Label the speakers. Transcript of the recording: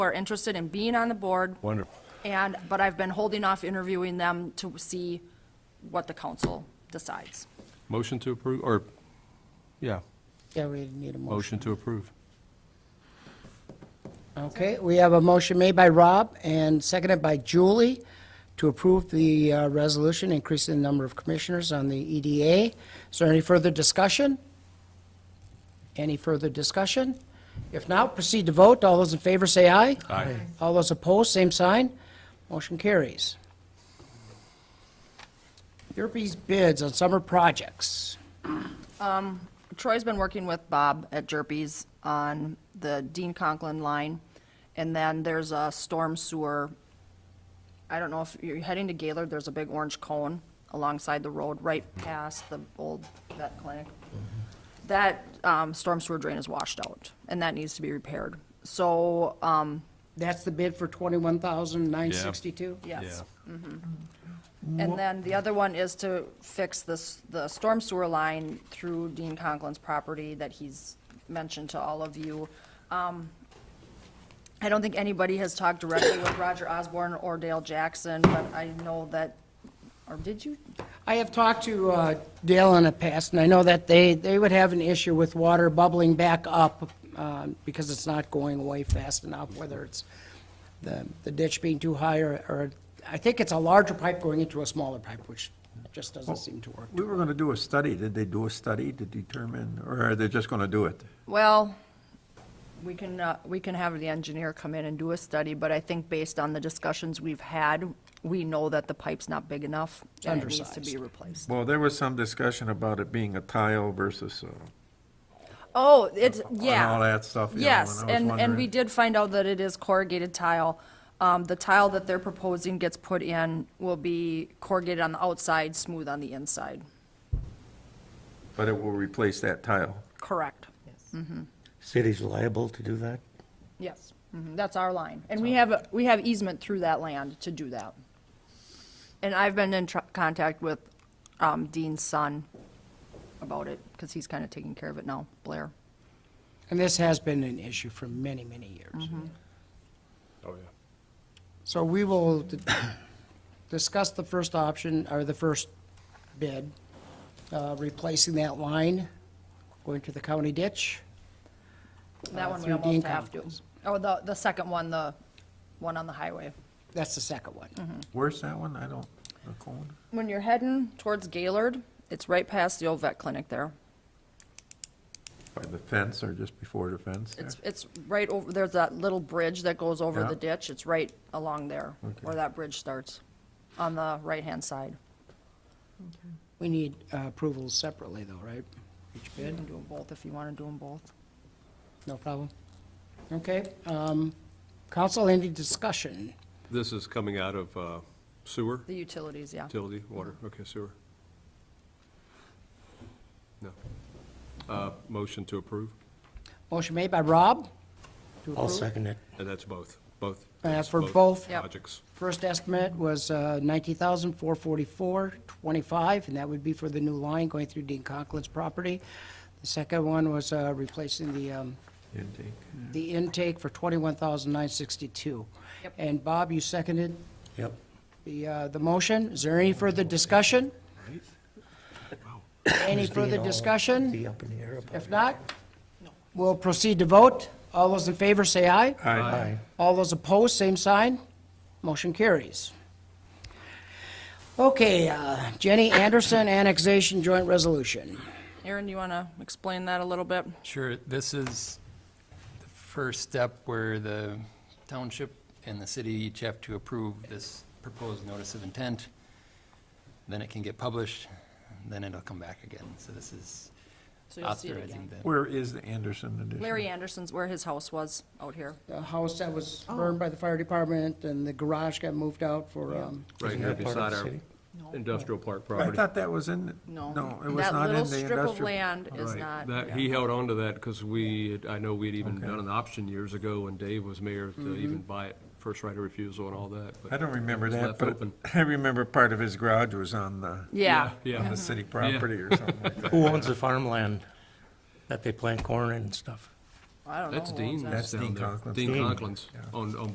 Speaker 1: who are interested in being on the board.
Speaker 2: Wonderful.
Speaker 1: And, but I've been holding off interviewing them to see what the council decides.
Speaker 2: Motion to approve, or, yeah,
Speaker 3: Yeah, we need a
Speaker 2: motion
Speaker 3: motion.
Speaker 2: to approve.
Speaker 3: Okay, we have a motion made by Rob and seconded by Julie to approve the uh, resolution increasing the number of commissioners on the EDA. Is there any further discussion? Any further discussion? If not, proceed to vote. All those in favor say aye.
Speaker 2: Aye.
Speaker 3: All those opposed, same sign. Motion carries. Europe's bids on summer projects.
Speaker 1: Troy's been working with Bob at Jerpies on the Dean Conklin line, and then there's a storm sewer. I don't know if you're heading to Gaylord, there's a big orange cone alongside the road, right past the old vet clinic. That um, storm sewer drain is washed out, and that needs to be repaired. So, um,
Speaker 3: That's the bid for 21,962?
Speaker 1: yes.
Speaker 2: Yeah.
Speaker 1: And then the other one is to fix this, the storm sewer line through Dean Conklin's property that he's mentioned to all of you. Um, I don't think anybody has talked directly with Roger Osborne or Dale Jackson, but I know that, or did you?
Speaker 3: I have talked to uh, Dale in the past, and I know that they, they would have an issue with water bubbling back up um, because it's not going away fast enough, whether it's the, the ditch being too high or, or, I think it's a larger pipe going into a smaller pipe, which just doesn't seem to work.
Speaker 4: We were gonna do a study. Did they do a study to determine, or are they just gonna do it?
Speaker 1: Well, we can, uh, we can have the engineer come in and do a study, but I think based on the discussions we've had, we know that the pipe's not big enough and it needs to be
Speaker 3: undersized.
Speaker 1: replaced.
Speaker 4: Well, there was some discussion about it being a tile versus, uh,
Speaker 1: Oh, it's,
Speaker 4: and
Speaker 1: yeah.
Speaker 4: all that stuff, you know,
Speaker 1: Yes,
Speaker 4: and I was
Speaker 1: and, and we
Speaker 4: wondering-
Speaker 1: did find out that it is corrugated tile. Um, the tile that they're proposing gets put in will be corrugated on the outside, smooth on the inside.
Speaker 4: but it will replace that tile.
Speaker 1: Correct.
Speaker 5: City's liable to do that?
Speaker 1: Yes, Mhm, that's our line. And we have, a- we have easement through that land to do that. And I've been in tr- contact with, um, Dean's son about it, because he's kind of taking care of it now, Blair.
Speaker 3: And this has been an issue for many, many years.
Speaker 2: Oh, yeah.
Speaker 3: So we will d- discuss the first option, or the first bid, uh, replacing that line, going to the county ditch.
Speaker 4: Uh,
Speaker 1: That one we
Speaker 3: through Dean
Speaker 1: almost have to.
Speaker 3: Collins.
Speaker 1: Oh, the, the second one, the one on the highway.
Speaker 3: That's the second one.
Speaker 4: Where's that one? I don't, the cone?
Speaker 1: When you're heading towards Gaylord, it's right past the old vet clinic there.
Speaker 4: By the fence or just before the fence there?
Speaker 1: It's, it's right over, there's that little bridge that goes over the
Speaker 4: Yeah.
Speaker 1: ditch. It's right along there where that bridge starts, on the right-hand side.
Speaker 3: We need uh, approvals separately though, right? Each
Speaker 1: You
Speaker 3: bid,
Speaker 1: can do them both if you want to do them both.
Speaker 3: no problem. Okay, um, council, any discussion?
Speaker 2: This is coming out of uh, sewer,
Speaker 1: The utilities, yeah.
Speaker 2: utility, water, okay, sewer. No. Uh, Motion to approve,
Speaker 3: Motion made by Rob,
Speaker 5: I'll second it.
Speaker 2: and that's both, both.
Speaker 3: Uh,
Speaker 2: that's
Speaker 3: for both?
Speaker 1: Yep.
Speaker 2: Projects.
Speaker 3: first estimate was uh, ninety thousand four forty-four twenty-five, and that would be for the new line going through Dean Conklin's property. The second one was uh, replacing the, um,
Speaker 4: Intake.
Speaker 3: the intake for twenty-one thousand nine sixty-two. And Bob, you seconded
Speaker 5: Yep.
Speaker 3: the, uh, the motion. Is there any further discussion? Any further discussion?
Speaker 5: Be up in the air about
Speaker 3: If
Speaker 5: it.
Speaker 3: not, we'll proceed to vote. All those in favor say aye.
Speaker 5: Aye.
Speaker 3: All those opposed, same sign. Motion carries. Okay, uh, Jenny Anderson, annexation joint resolution.
Speaker 1: Aaron, do you want to explain that a little bit?
Speaker 6: Sure, this is the first step where the township and the city each have to approve this proposed notice of intent. Then it can get published, then it'll come back again. So this is
Speaker 1: So you'll see it
Speaker 6: authorizing
Speaker 1: again.
Speaker 6: that.
Speaker 4: Where is the Anderson addition?
Speaker 1: Larry Anderson's where his house was out here.
Speaker 3: The house that was burned by the fire department and the garage got moved out for, um,
Speaker 2: Right
Speaker 5: Isn't
Speaker 2: here
Speaker 5: that part of
Speaker 2: beside
Speaker 5: the
Speaker 2: our
Speaker 5: city?
Speaker 2: industrial park
Speaker 4: I
Speaker 2: property.
Speaker 4: thought that was in,
Speaker 1: No.
Speaker 4: no, it was
Speaker 1: That
Speaker 4: not in the
Speaker 1: little
Speaker 4: industrial.
Speaker 1: strip of land is
Speaker 2: Right.
Speaker 1: not.
Speaker 2: That, he held on to that because we, I know we'd even done an option years ago when Dave was mayor to even
Speaker 1: Mm-hmm.
Speaker 2: buy it, first right of refusal and all that. but
Speaker 4: I don't remember
Speaker 2: it's
Speaker 4: that,
Speaker 2: left
Speaker 4: but
Speaker 2: open.
Speaker 4: I remember part of his garage was on the,
Speaker 1: Yeah.
Speaker 2: Yeah.
Speaker 4: on the city property or something like that.
Speaker 5: Who owns the farmland that they plant corn in and stuff?
Speaker 1: I don't know.
Speaker 2: That's
Speaker 1: who owns
Speaker 2: Dean.
Speaker 1: that.
Speaker 4: That's
Speaker 2: down
Speaker 4: Dean
Speaker 2: there.
Speaker 4: Conklin's.
Speaker 2: Dean
Speaker 4: Dean.
Speaker 2: Conklin's
Speaker 4: Yeah.
Speaker 2: on, on